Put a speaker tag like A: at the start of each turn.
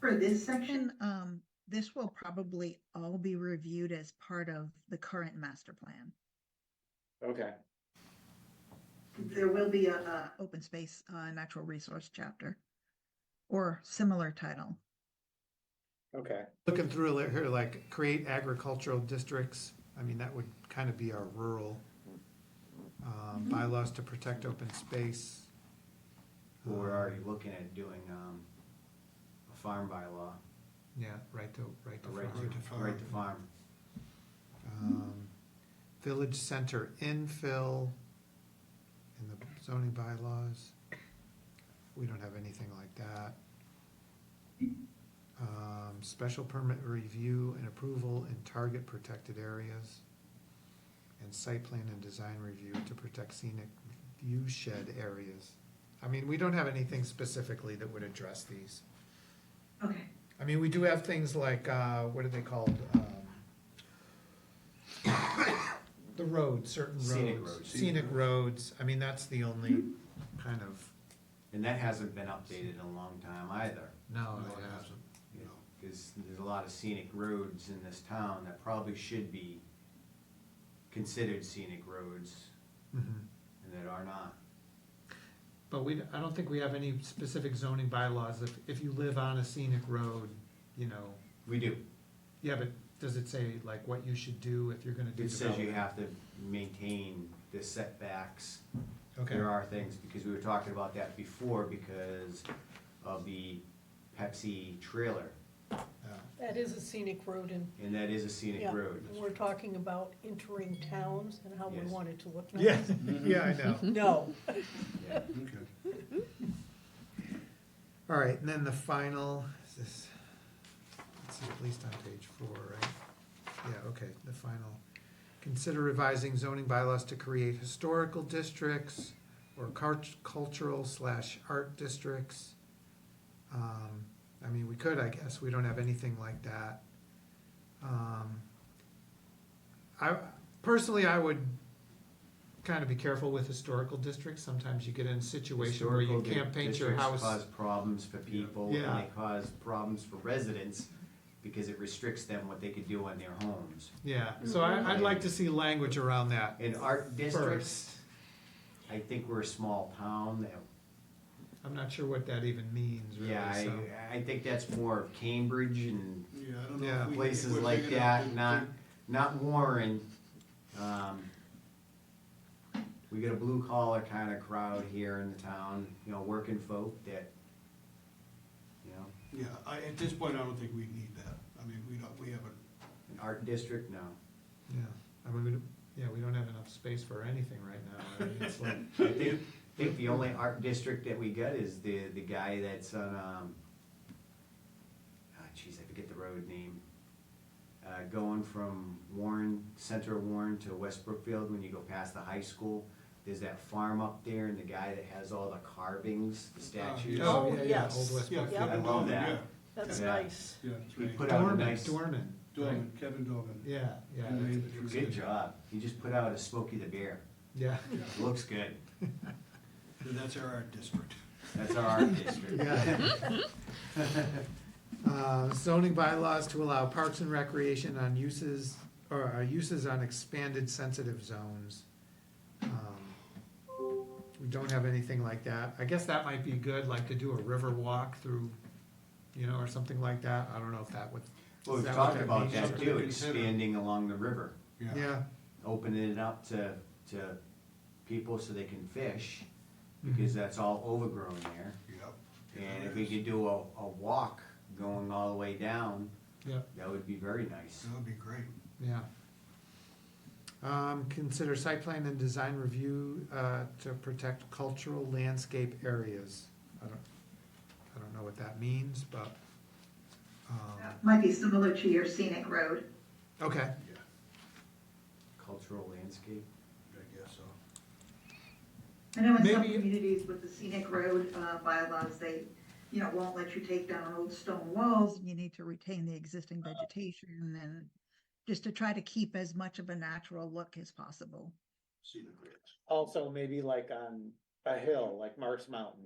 A: for this section?
B: Section, um, this will probably all be reviewed as part of the current master plan.
C: Okay,
A: There will be a, a,
B: Open space, uh, natural resource chapter. Or similar title.
C: okay.
D: Looking through li- here, like create agricultural districts, I mean, that would kind of be our rural um, bylaws to protect open space.
E: Well, we're already looking at doing, um, a farm bylaw,
D: Yeah, right to, right
E: a
D: to
E: right
D: farm.
E: to, right to farm.
D: Um, Village center infill in the zoning bylaws. We don't have anything like that. Um, special permit review and approval in target protected areas. And site plan and design review to protect scenic view shed areas. I mean, we don't have anything specifically that would address these.
A: okay,
D: I mean, we do have things like, uh, what are they called? Um, The roads, certain
E: Scenic
D: roads,
E: roads.
D: scenic roads, I mean, that's the only kind of.
E: And that hasn't been updated in a long time either.
D: No,
F: No, it hasn't. No.
E: Cause there's a lot of scenic roads in this town that probably should be considered scenic roads
F: Mm-hmm.
E: and that are not.
D: But we, I don't think we have any specific zoning bylaws, if, if you live on a scenic road, you know,
E: We do.
D: yeah, but does it say like what you should do if you're gonna do
E: It says you
D: development?
E: have to maintain the setbacks.
D: Okay,
E: There are things, because we were talking about that before because of the Pepsi trailer,
D: yeah.
G: That is a scenic road and,
E: and that is a scenic
G: yeah,
E: road.
G: we're talking about entering towns and how we
E: Yes.
G: want it to look.
D: Yeah,
G: nice.
D: yeah, I know.
G: No,
E: Yeah.
F: Okay.
D: All right, and then the final, is this, let's see, at least on page four, right? Yeah, okay, the final. Consider revising zoning bylaws to create historical districts or cult- cultural slash art districts. Um, I mean, we could, I guess, we don't have anything like that. Um, I, personally, I would kind of be careful with historical districts. Sometimes you get in a situation where you
E: Historical
D: can't paint your house.
E: districts Cause problems for people, and
D: Yeah.
E: they cause problems for residents, because it restricts them what they could do on their homes.
D: Yeah, so I, I'd like to see language around that.
E: Mm-hmm. In art
D: First,
E: districts, I think we're a small town, that-
D: I'm not sure what that even means, really,
E: yeah,
D: so.
E: I, I think that's more of Cambridge and
F: Yeah, I don't know.
D: Yeah.
F: if we-
E: places
F: we're
E: like
F: big enough
E: that,
F: to-
E: not, not Warren. Um, We got a blue collar kind of crowd here in the town, you know, working folk that, you know,
F: Yeah, I, at this point, I don't think we need that. I mean, we don't, we haven't,
E: an art district, no.
D: Yeah, I mean, we, don't- yeah, we don't have enough space for anything right now. I mean, it's like,
E: I think, I think the only art district that we got is the, the guy that's on, um, ah, jeez, I forget the road name. Uh, going from Warren, Center of Warren to West Brookfield, when you go past the high school, there's that farm up there and the guy that has all the carvings, the statues.
F: yeah.
D: oh, yeah, yeah,
G: yes.
D: Old West
F: yeah.
D: Brookfield.
E: I love that.
G: that's
E: Yeah.
G: nice.
F: Yeah, that's
E: He
F: right.
E: put out a
D: Dorman,
E: nice,
D: Dorman,
F: Dorman, Kevin Dorman.
D: yeah, yeah.
F: He made
D: that's-
F: the
E: good job. He just put out a Smokey the Bear.
D: Yeah,
E: Looks good.
F: That's our art district.
E: That's our art district.
D: yeah. Uh, zoning bylaws to allow parks and recreation on uses, or uh, uses on expanded sensitive zones. Um, We don't have anything like that. I guess that might be good, like to do a river walk through, you know, or something like that. I don't know if that would.
E: Well, we've
D: is that what
E: talked about
D: means?
E: that
F: Something
E: too,
F: to consider.
E: expanding along the river.
D: Yeah,
E: opening it up to, to people so they can fish, because that's all overgrown there.
F: Yep.
E: And if we could do a, a walk going all the way down,
D: yeah,
E: that would be very nice.
F: That would be great.
D: yeah. Um, consider site plan and design review, uh, to protect cultural landscape areas. I don't, I don't know what that means, but, um,
A: might be similar to your scenic road.
D: okay.
F: Yeah,
E: Cultural landscape.
F: I guess so.
A: I know in some
D: Maybe-
A: communities with the scenic road, uh, bylaws, they, you know, won't let you take down old stone walls.
B: You need to retain the existing vegetation and just to try to keep as much of a natural look as possible.
F: See the grants.
C: Also, maybe like on a hill, like Mark's Mountain,